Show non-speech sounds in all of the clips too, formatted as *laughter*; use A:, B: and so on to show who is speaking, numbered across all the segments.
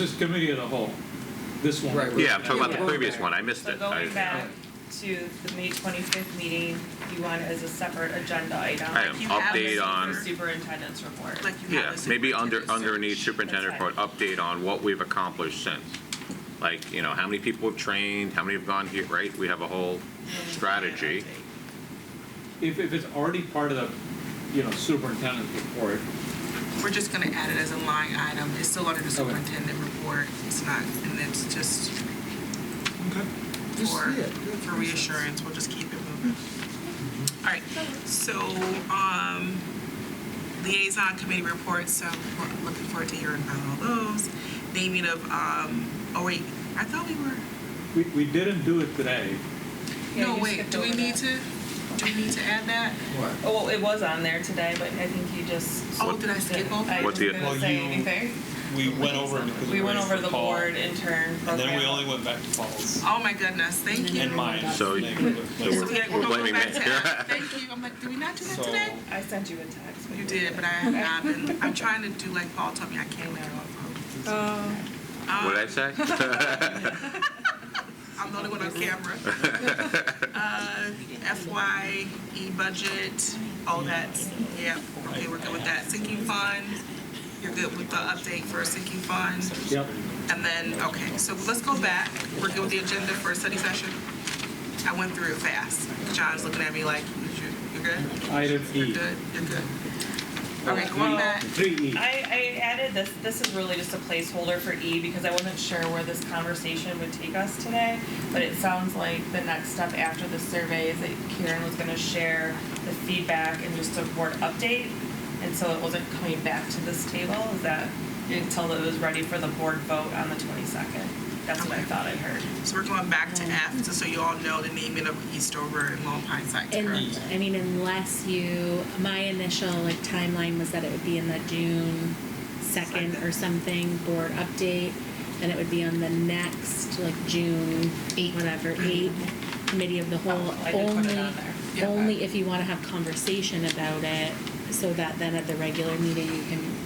A: This committee of the whole, this one.
B: Right, right.
C: Yeah, I'm talking about
D: Yeah,
C: the
D: we're
C: previous
D: there.
C: one, I missed
E: So
C: it. I-
E: going back to the May twenty-fifth meeting, you want as a separate agenda item.
C: I am
E: You have
C: update
E: this for
C: on-
E: Superintendent's report.
D: Like you
C: Yeah,
D: have.
C: maybe under, underneath superintendent
E: That's
C: report, update on what we've accomplished since. Like, you know, how many people have trained, how many have gone here, right? We have a whole strategy.
A: If, if it's already part of the, you know, superintendent's report,
D: We're just gonna add it as a line item. It's still under the superintendent report. It's not, and it's just
B: Just-
D: for,
B: yeah,
D: for reassurance. We'll just keep it moving. All right, so, um, liaison committee reports, so we're looking forward to hearing about all those. Naming of, um, oh wait, I thought we were.
A: we, we didn't do it today.
E: Yeah,
D: No,
E: you
D: wait,
E: skipped
D: do we
E: over
D: need
E: that.
D: to, do we need to add that?
B: What?
E: Oh, well, it was on there today, but I think you just.
D: Oh, did I skip over?
E: I
C: What
E: was
C: the-
E: gonna
A: Well,
E: say
A: you-
E: anything.
A: We went over it because
E: We
A: we
E: went
A: raised
E: over the
A: call,
E: board intern program.
A: And then we only went back to Paul's
D: Oh my goodness, thank you.
A: and mine.
C: So-
D: So
C: we're-
D: we had-
C: we're
D: we're going
C: blaming
D: back
C: me.
D: to
C: *laughs*
D: Al. Thank you. I'm like, did we not do that
A: So-
D: today?
E: I sent you a text.
D: You did, but I have not been, I'm trying to do like Paul told me, I can't look at my phone. Um,
E: Oh.
C: What'd I say?
D: I'm the only one on camera.
E: *laughs*
C: *laughs*
D: Uh, FYE budget, all that, yeah, okay, we're good with that. Sinking fund, you're good with the update for sinking fund?
A: Yep.
D: And then, okay, so let's go back. We're good with the agenda for a study session. I went through it fast. John's looking at me like, you, you good?
A: Item
D: You're
A: E.
D: good, you're good. Okay, going back.
A: Three E.
E: I, I added this, this is really just a placeholder for E because I wasn't sure where this conversation would take us today. But it sounds like the next step after the survey is that Karen was gonna share the feedback and just a board update. And so it wasn't coming back to this table, is that, until it was ready for the board vote on the twenty-second. That's what I thought I heard.
D: So we're going back to F, just so you all know the naming of Eastover and Long Pine sites,
F: And,
D: correct?
F: I mean, unless you, my initial like timeline was that it would be in the June second or something board update. And it would be on the next, like June, whatever, eight, committee of the whole.
E: I did put it
F: Only,
E: on there.
D: Yeah.
F: only if you wanna have conversation about it, so that then at the regular meeting, you can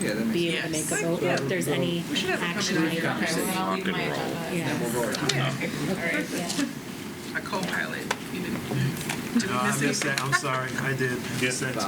B: Yeah, that
F: be
B: makes
F: able
D: Yes.
F: to make a vote, or if there's any
D: We should have it
F: action
D: coming
F: item.
D: out here.
B: well,
C: I'll leave my agenda.
B: And we'll
F: Yeah,
B: vote on it.
E: Alright.
F: yeah.
D: A co-pilot. You didn't- Did
G: No,
D: we
G: I
D: miss
G: missed that,
D: anything?
G: I'm sorry, I did, I missed that too.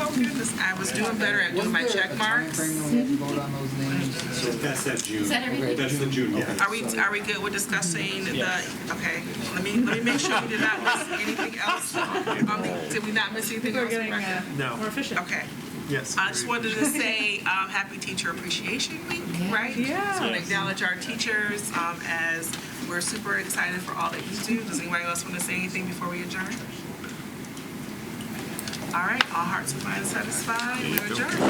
D: Oh goodness, I was doing better at doing my
B: Wasn't there
D: check
B: a
D: marks.
B: timeframe when we had to vote on those names?
H: That's that June.
B: Okay,
H: That's the June.
G: Yeah.
H: meeting.
D: Are we, are we good with discussing the, okay, let me, let me make sure we did not miss anything else. Um, Did we not miss anything
E: We're
D: else?
E: getting, uh,
G: No.
E: more efficient.
D: Okay,
G: Yes.
D: I just
G: very
D: wanted to say, um, happy Teacher Appreciation Week, right?
E: Yeah.
D: So we acknowledge our teachers, um, as we're super excited for all that you do. Does anybody else want to say anything before we adjourn? All right, all hearts and minds satisfied, we adjourn.